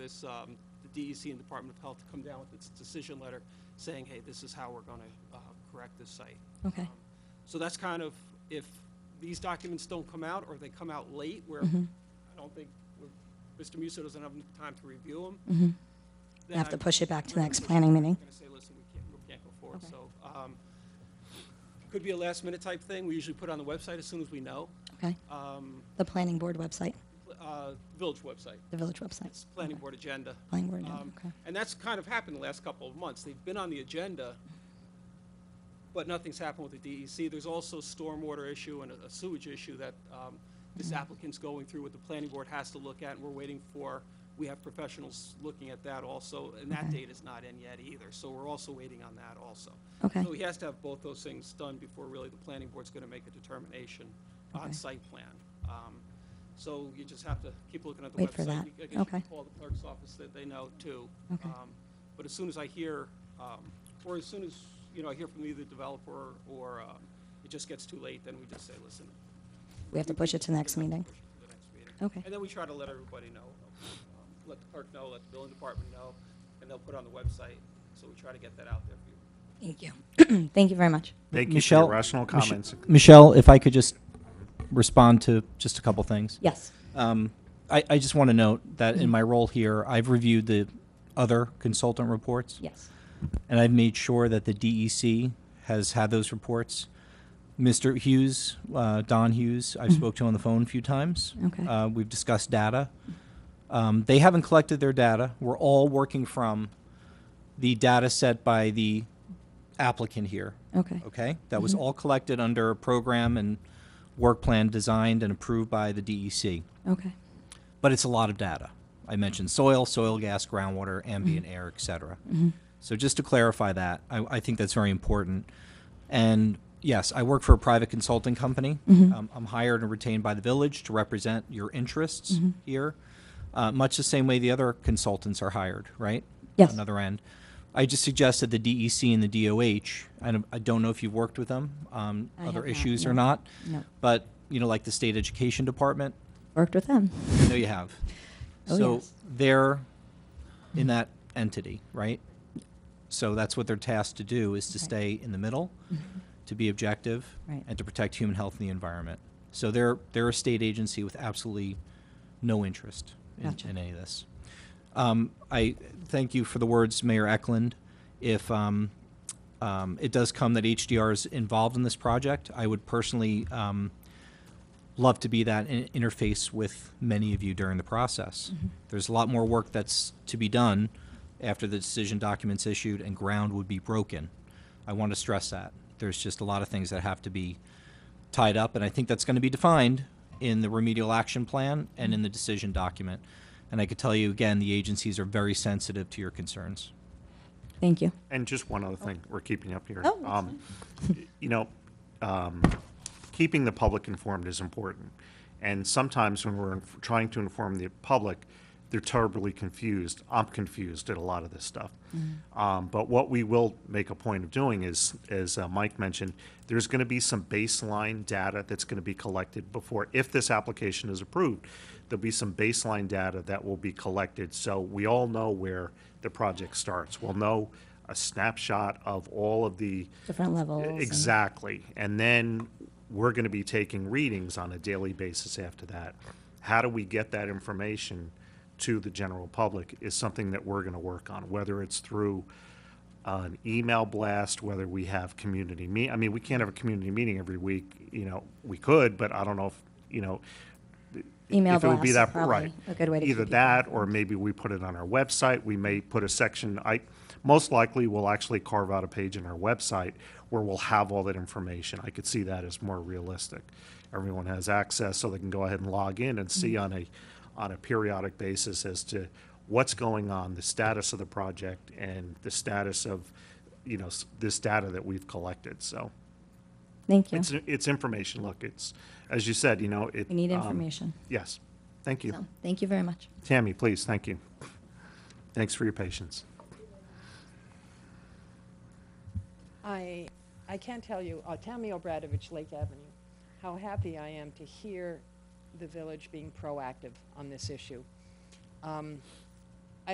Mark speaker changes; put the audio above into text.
Speaker 1: authorize um, the DEC and Department of Health to come down with its decision letter saying, hey, this is how we're going to correct this site.
Speaker 2: Okay.
Speaker 1: Um, So that's kind of, if these documents don't come out, or they come out late, where
Speaker 2: Mhm.
Speaker 1: I don't think, we're- Mr. Musso doesn't have enough time to review them,
Speaker 2: Mhm.
Speaker 1: then
Speaker 2: Have to
Speaker 1: I'm-
Speaker 2: push it back to the
Speaker 1: we're
Speaker 2: next
Speaker 1: gonna-
Speaker 2: planning meeting.
Speaker 1: We're gonna say, listen, we can't, we can't go forward,
Speaker 2: Okay.
Speaker 1: so, um, could be a last minute type thing, we usually put it on the website as soon as we know,
Speaker 2: Okay.
Speaker 1: um,
Speaker 2: The planning board website,
Speaker 1: uh, village website,
Speaker 2: the village website.
Speaker 1: it's planning
Speaker 2: Okay.
Speaker 1: board agenda.
Speaker 2: Planning board, agenda,
Speaker 1: Um,
Speaker 2: okay.
Speaker 1: And that's kind of happened the last couple of months, they've been on the agenda, but nothing's happened with the DEC, there's also stormwater issue and a a sewage issue that, um, this applicant's going through, what the planning board has to look at, and we're waiting for, we have professionals looking at that also, and that
Speaker 2: Okay.
Speaker 1: date is not in yet either, so we're also waiting on that also.
Speaker 2: Okay.
Speaker 1: So he has to have both those things done before really the planning board's gonna make a determination on
Speaker 2: Okay.
Speaker 1: site plan. Um, So you just have to keep looking at the website.
Speaker 2: Wait for that.
Speaker 1: You- I guess you can
Speaker 2: Okay.
Speaker 1: Call the clerk's office, that they know too.
Speaker 2: Okay.
Speaker 1: Um, But as soon as I hear, um, or as soon as, you know, I hear from either developer or um, it just gets too late, then we just say, listen.
Speaker 2: We have to push it to the next
Speaker 1: we have to
Speaker 2: meeting.
Speaker 1: push it to the next meeting.
Speaker 2: Okay.
Speaker 1: And then we try to let everybody know, um, let the clerk know, let the building department know, and they'll put it on the website. So we try to get that out there for you.
Speaker 2: Thank you. Thank you very much.
Speaker 3: Thank you for
Speaker 4: Michelle,
Speaker 3: your rational
Speaker 4: Mich-
Speaker 3: comments.
Speaker 4: Michelle, if I could just respond to just a couple things.
Speaker 2: Yes.
Speaker 4: Um, I, I just want to note that in my role here, I've reviewed the other consultant reports.
Speaker 2: Yes.
Speaker 4: And I've made sure that the DEC has had those reports. Mr. Hughes, uh, Don Hughes, I've spoke to on the phone a few times.
Speaker 2: Okay.
Speaker 4: Uh, we've discussed data. Um, they haven't collected their data. We're all working from the data set by the applicant here.
Speaker 2: Okay.
Speaker 4: Okay, that was all collected under a program and work plan designed and approved by the DEC.
Speaker 2: Okay.
Speaker 4: But it's a lot of data. I mentioned soil, soil gas, groundwater, ambient air, et cetera. So just to clarify that, I, I think that's very important. And yes, I work for a private consulting company. Um, I'm hired and retained by the village to represent your interests here, uh, much the same way the other consultants are hired, right?
Speaker 2: Yes.
Speaker 4: Another end. I just suggested the DEC and the DOH. I don't, I don't know if you've worked with them, um,
Speaker 2: I
Speaker 4: other
Speaker 2: have not,
Speaker 4: issues or
Speaker 2: no.
Speaker 4: not.
Speaker 2: No.
Speaker 4: But you know, like the state education department,
Speaker 2: Worked with them.
Speaker 4: I know you have.
Speaker 2: Oh,
Speaker 4: so
Speaker 2: yes.
Speaker 4: they're in that entity, right? So that's what they're tasked to do is to
Speaker 2: Right. Mm-hmm.
Speaker 4: stay in the middle, to be objective,
Speaker 2: Right.
Speaker 4: and to protect human health and the environment. So they're they're a state agency with absolutely no interest in,
Speaker 2: Gotcha.
Speaker 4: in any of this. Um, I thank you for the words, Mayor Eklund. If um, um, it does come that HDR is involved in this project, I would personally um, love to be that in- interface with many of you during the process. There's a lot more work that's to be done after the decision documents issued and ground would be broken. I want to stress that. There's just a lot of things that have to be tied up, and I think that's going to be defined in the remedial action plan and in the decision document. And I could tell you again, the agencies are very sensitive to your concerns.
Speaker 2: Thank you.
Speaker 3: And just one other thing, we're keeping up here.
Speaker 2: Oh, that's
Speaker 3: Um, You know, um, keeping the public informed is important. And sometimes when we're inf- trying to inform the public, they're terribly confused. I'm confused at a lot of this stuff. Um, But what we will make a point of doing is, as uh, Mike mentioned, there's going to be some baseline data that's going to be collected before, if this application is approved, there'll be some baseline data that will be collected, so we all know where the project starts. We'll know a snapshot of all of the.
Speaker 2: Different levels. and-
Speaker 3: Exactly. And then we're going to be taking readings on a daily basis after that. How do we get that information to the general public is something that we're going to work on, whether it's through an email blast, whether we have community me, I mean, we can't have a community meeting every week, you know, we could, but I don't know if, you know,
Speaker 2: Email
Speaker 3: if it would be
Speaker 2: blast,
Speaker 3: that,
Speaker 2: probably
Speaker 3: right.
Speaker 2: A good way to.
Speaker 3: Either
Speaker 2: keep people
Speaker 3: that,
Speaker 2: informed.
Speaker 3: or maybe we put it on our website, we may put a section, I, most likely, we'll actually carve out a page in our website where we'll have all that information. I could see that as more realistic. Everyone has access, so they can go ahead and log in and see
Speaker 2: Mm-hmm.
Speaker 3: on a, on a periodic basis as to what's going on, the status of the project, and the status of, you know, s- this data that we've collected, so.
Speaker 2: Thank you.
Speaker 3: It's, it's information, look, it's, as you said, you know, it.
Speaker 2: We need
Speaker 3: um,
Speaker 2: information.
Speaker 3: Yes, thank you.
Speaker 2: So, Thank you very much.
Speaker 3: Tammy, please, thank you. Thanks for your patience.
Speaker 5: I, I can't tell you, uh, Tammy Obradovich, Lake Avenue, how happy I am to hear the village being proactive on this issue. Um,